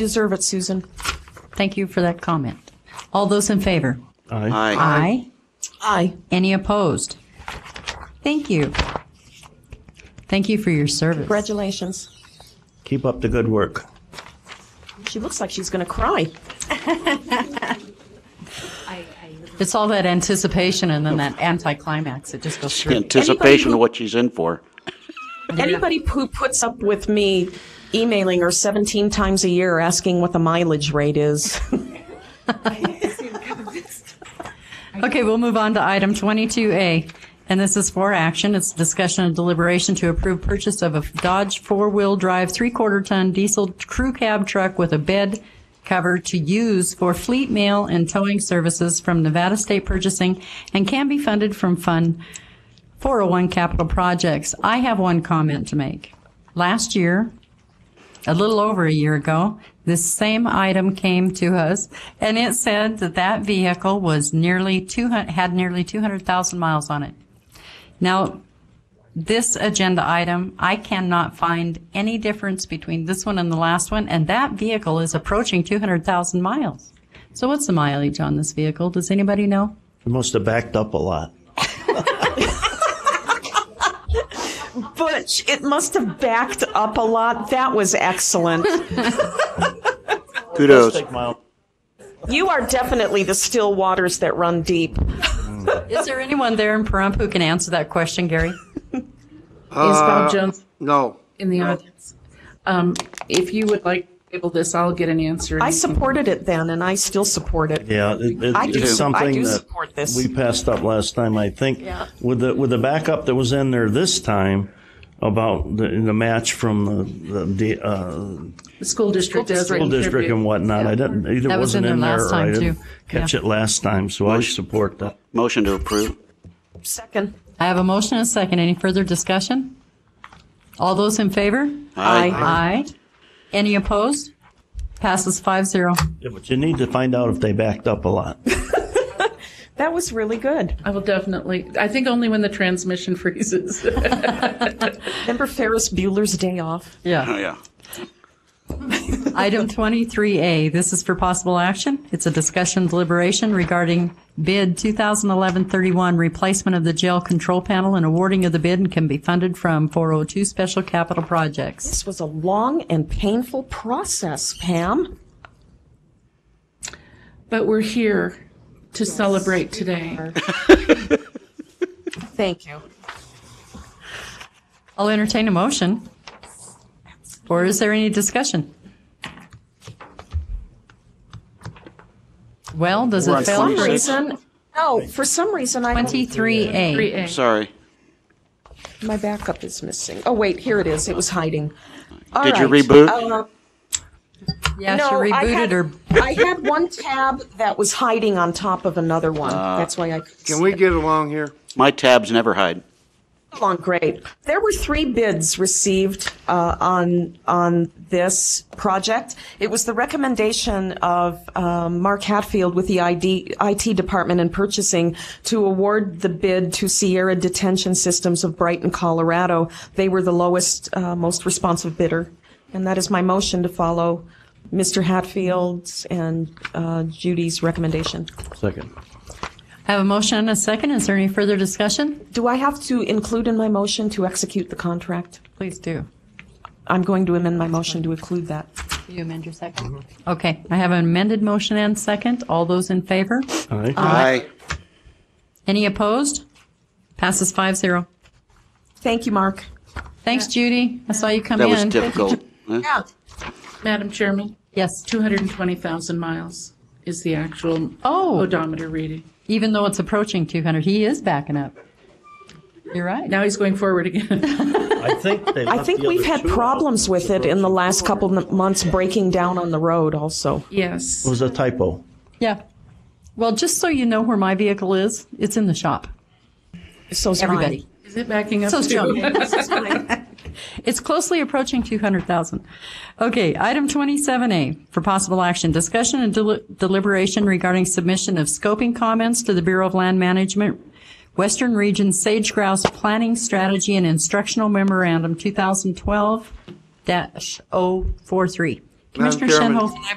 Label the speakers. Speaker 1: Deserve it, Susan.
Speaker 2: Thank you for that comment. All those in favor?
Speaker 3: Aye.
Speaker 4: Aye.
Speaker 2: Aye.
Speaker 1: Aye.
Speaker 2: Any opposed? Thank you. Thank you for your service.
Speaker 1: Congratulations.
Speaker 3: Keep up the good work.
Speaker 1: She looks like she's going to cry.
Speaker 2: It's all that anticipation and then that anticlimax. It just goes through.
Speaker 4: Anticipation of what she's in for.
Speaker 1: Anybody who puts up with me emailing her 17 times a year asking what the mileage rate is.
Speaker 2: Okay, we'll move on to item 22A, and this is for action. It's discussion and deliberation to approve purchase of a Dodge four-wheel drive, three-quarter ton diesel crew cab truck with a bed cover to use for fleet mail and towing services from Nevada State Purchasing and can be funded from Fund 401 Capital Projects. I have one comment to make. Last year, a little over a year ago, this same item came to us and it said that that vehicle was nearly 200, had nearly 200,000 miles on it. Now, this agenda item, I cannot find any difference between this one and the last one, and that vehicle is approaching 200,000 miles. So what's the mileage on this vehicle? Does anybody know?
Speaker 3: You must have backed up a lot.
Speaker 1: Butch, it must have backed up a lot. That was excellent.
Speaker 4: Kudos.
Speaker 3: Take my own-
Speaker 1: You are definitely the still waters that run deep.
Speaker 2: Is there anyone there in Pahrump who can answer that question, Gary?
Speaker 5: Is Bob Jones
Speaker 4: Uh, No.
Speaker 5: in the audience? Um, If you would like to table this, I'll get an answer.
Speaker 1: I supported it then, and I still support it.
Speaker 3: Yeah, it, it,
Speaker 1: I do- I
Speaker 3: it's something
Speaker 1: do
Speaker 3: that
Speaker 1: support this.
Speaker 3: we passed up last time. I think with the with the backup that was in there this time about the, the match from the, the uh,
Speaker 5: The school district does.
Speaker 3: school district and whatnot. I didn't either
Speaker 2: That was in
Speaker 3: wasn't
Speaker 2: there
Speaker 3: in there,
Speaker 2: last
Speaker 3: or I
Speaker 2: time,
Speaker 3: didn't
Speaker 2: too.
Speaker 3: catch it last time. So I support that.
Speaker 4: Motion to approve.
Speaker 1: Second.
Speaker 2: I have a motion and a second. Any further discussion? All those in favor?
Speaker 1: Aye.
Speaker 2: Aye. Any opposed? Passes five zero.
Speaker 3: Yeah, but you need to find out if they backed up a lot.
Speaker 1: That was really good.
Speaker 5: I will definitely, I think only when the transmission freezes.
Speaker 1: Remember Ferris Bueller's Day Off?
Speaker 4: Oh,
Speaker 2: Yeah.
Speaker 4: yeah.
Speaker 2: Item 23A, this is for possible action. It's a discussion deliberation regarding bid 2011-31, replacement of the jail control panel and awarding of the bid and can be funded from 402 Special Capital Projects.
Speaker 1: This was a long and painful process, Pam.
Speaker 5: But we're here to celebrate today.
Speaker 1: Thank you.
Speaker 2: I'll entertain a motion. Or is there any discussion? Well, does
Speaker 4: We're on
Speaker 2: it fail?
Speaker 1: For some
Speaker 4: 26.
Speaker 1: reason, no, for some reason, I, don't-
Speaker 2: 23A.
Speaker 5: 3A.
Speaker 4: Sorry.
Speaker 1: my backup is missing. Oh, wait, here it is. It was hiding. All
Speaker 4: Did you
Speaker 1: right.
Speaker 4: reboot?
Speaker 1: Uh,
Speaker 2: Yeah, she
Speaker 1: No, I
Speaker 2: rebooted
Speaker 1: had,
Speaker 2: her.
Speaker 1: I had one tab that was hiding on top of another one. That's why I.
Speaker 6: Uh, Can we get along here?
Speaker 4: My tabs never hide.
Speaker 1: Along, great. There were three bids received uh, on on this project. It was the recommendation of um, Mark Hatfield with the ID, IT department and purchasing to award the bid to Sierra Detention Systems of Brighton, Colorado. They were the lowest, uh, most responsive bidder, and that is my motion to follow Mr. Hatfield's and uh, Judy's recommendation.
Speaker 3: Second.
Speaker 2: I have a motion and a second. Is there any further discussion?
Speaker 1: Do I have to include in my motion to execute the contract?
Speaker 2: Please do.
Speaker 1: I'm going to amend my motion to include that.
Speaker 2: You amend your second? Mm-hmm. Okay, I have an amended motion and second. All those in favor?
Speaker 3: Aye.
Speaker 1: Uh,
Speaker 4: Aye.
Speaker 2: Any opposed? Passes five zero.
Speaker 1: Thank you, Mark.
Speaker 2: Thanks, Judy. I saw you come
Speaker 4: That was
Speaker 2: in.
Speaker 4: difficult. Huh?
Speaker 5: Madam Chairman,
Speaker 2: Yes,
Speaker 5: 220,000 miles is the actual
Speaker 2: Oh.
Speaker 5: odometer reading.
Speaker 2: even though it's approaching 200, he is backing up. You're right.
Speaker 5: Now he's going forward again.
Speaker 3: I think they.
Speaker 1: I think we've had problems with it in the last couple of months breaking down on the road also.
Speaker 5: Yes.
Speaker 3: It was a typo.
Speaker 2: Yeah. Well, just so you know where my vehicle is, it's in the shop.
Speaker 1: So's mine.
Speaker 2: Everybody.
Speaker 5: Is it backing up?
Speaker 2: So it's
Speaker 5: too?
Speaker 2: Joan. It's closely approaching 200,000. Okay, item 27A for possible action, discussion and del- deliberation regarding submission of scoping comments to the Bureau of Land Management, Western Region Sage Grouse Planning Strategy and Instructional Memorandum 2012-043. Commissioner
Speaker 6: Chairman.
Speaker 2: Shenhoff and I